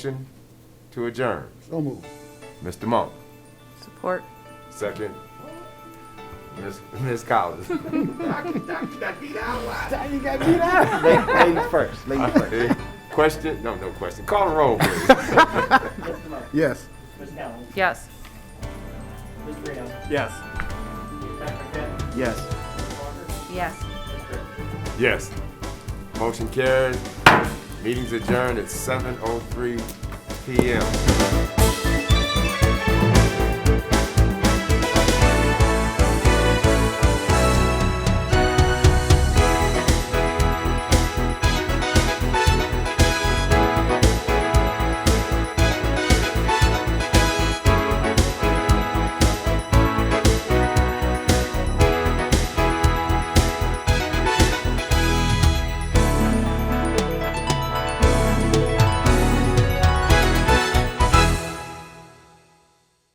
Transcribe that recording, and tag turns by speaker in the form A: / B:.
A: Motion to adjourn.
B: So moved.
A: Mr. Monk,
C: Support.
A: second. Ms. Ms. Collins.
B: You got beat out. Ladies first, ladies first.
A: Eh, Question? No, no question. Call the roll, please.
B: Yes.
D: Ms. Collins,
C: Yes.
D: Ms. Graham,
B: Yes.
D: Dr. Kent,
B: Yes.
D: Ms. Walker,
C: Yes.
D: Ms. Griffin.
A: Yes. Motion oh carried. Meeting's adjourned at 7:03 PM.